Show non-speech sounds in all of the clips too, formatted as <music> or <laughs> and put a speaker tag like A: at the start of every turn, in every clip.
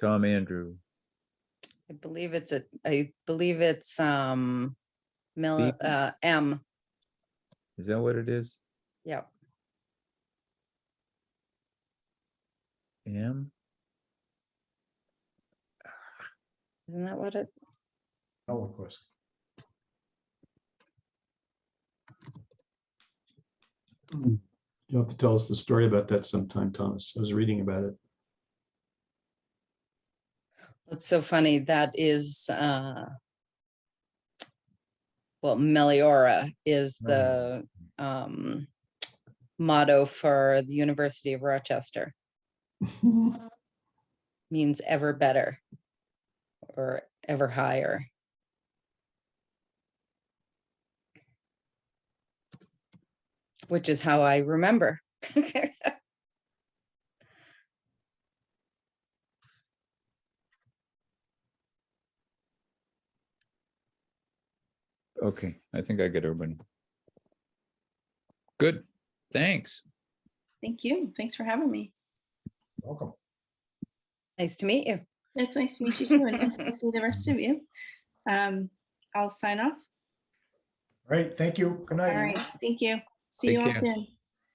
A: Tom Andrew,
B: I believe it's a, I believe it's, um, Mill,
A: B?
B: uh, M,
A: is that what it is?
B: yep.
A: M?
B: Isn't that what it,
C: Eloquist.
D: Hmm. You'll have to tell us the story about that sometime, Thomas. I was reading about it.
B: it's so funny, that is, uh, well, Meliora is the, um, motto for the University of Rochester, means ever better or ever higher. Which is how I remember. <laughs>
A: Okay, I think I get everybody. Good, thanks.
E: Thank you. Thanks for having me.
C: Welcome.
B: Nice to meet you.
E: It's nice to meet you too, and nice <laughs> to see the rest of you. Um, I'll sign off.
C: All right, thank you. Good
E: All
C: night.
E: right, thank you. See you
A: Take
E: all
A: care.
E: soon.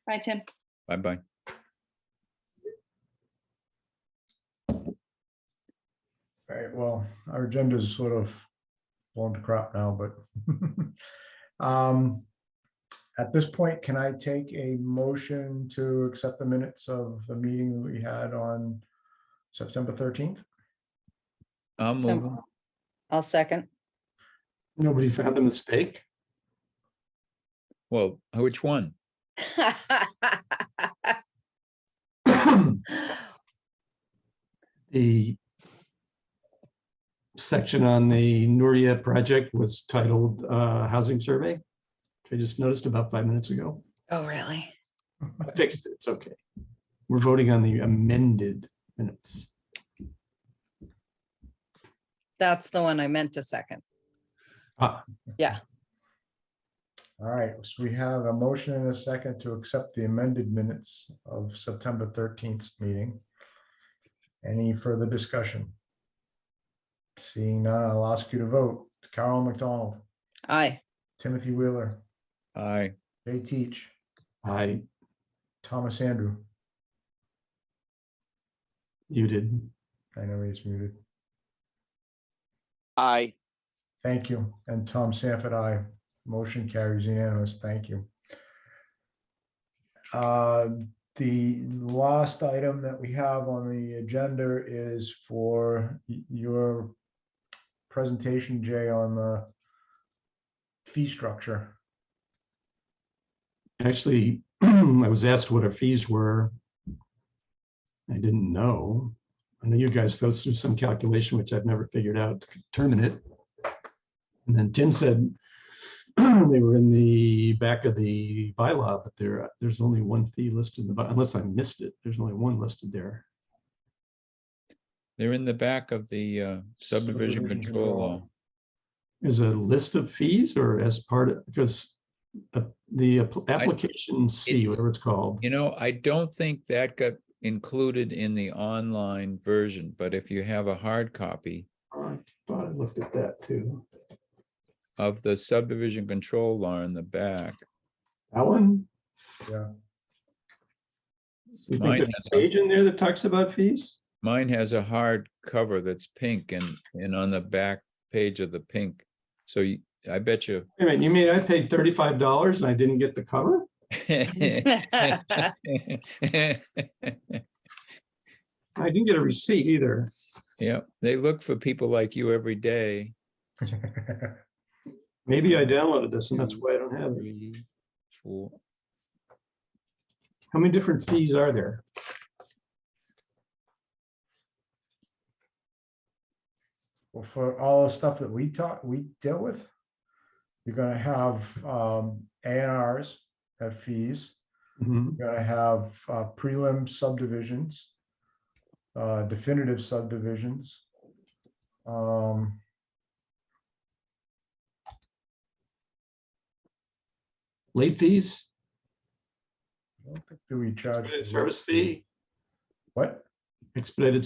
E: Bye, Tim.
A: Bye-bye.
C: All right, well, our agenda is sort of blown to crap now, but <laughs> um, at this point, can I take a motion to accept the minutes of the meeting that we had on September thirteenth?
A: I'll move.
B: So-
A: on.
B: I'll second.
D: <laughs>
B: <laughs>
D: Nobody found the mistake?
A: Well, which one?
D: <coughs> The section on the Nuria project was titled uh, Housing Survey, which I just noticed about five minutes ago.
B: Oh, really?
D: I fixed it. It's okay. We're voting on the amended minutes.
B: That's the one I meant to second.
C: All right, so we have a motion and a second to accept the amended minutes of September thirteenth meeting. Any further discussion? Seeing none, I'll ask you to vote. Carol McDonald,
A: <laughs>
B: Aye. <laughs>
C: Timothy Wheeler,
A: Aye.
C: Jay Teach,
D: I,
C: Thomas Andrew.
D: you did.
C: I know he's muted.
F: Aye.
C: Thank you. And Tom Sanford, I Motion carries unanimous. Thank you. Uh, The last item that we have on the agenda is for y- your presentation, Jay, on the fee structure.
D: Actually, <clears throat> I was asked what our fees were. I didn't know. I know you guys go through some calculation, which I've never figured out to determine it. And then Tim said <clears throat> they were in the back of the bylaw, but there, there's only one fee listed in the, by- unless I missed it, there's only one listed there.
A: They're in the back of the uh, subdivision
C: Subdivision
A: control
C: control.
A: law.
D: Is a list of fees or as part of, because uh, the app- application C, whatever it's called.
A: You know, I don't think that got included in the online version, but if you have a hard copy
D: I Thought I looked at that too.
A: of the subdivision control law in the back,
D: That one?
C: Yeah.
D: You think
A: Mine
D: there's
A: has
D: a
A: a-
D: page in there that talks about fees?
A: mine has a hard cover that's pink and, and on the back page of the pink. So you- I bet you. <laughs>
D: Wait a minute, you mean I paid thirty-five dollars and I didn't get the cover? I didn't get a receipt either.
A: Yeah, they look for people like you every day.
C: <laughs>
D: Maybe I downloaded this and that's why I don't have it.
A: Three, four,
D: How many different fees are there?
C: Well, For all the stuff that we talk, we deal with, you're gonna have um, A and Rs have fees.
D: Mhm.
C: You're gonna have uh, prelim subdivisions, uh, definitive subdivisions. Um,
D: Late fees,
C: I don't think Do we charge?
D: expedited
C: for-
D: service fee,
C: What?
D: expedited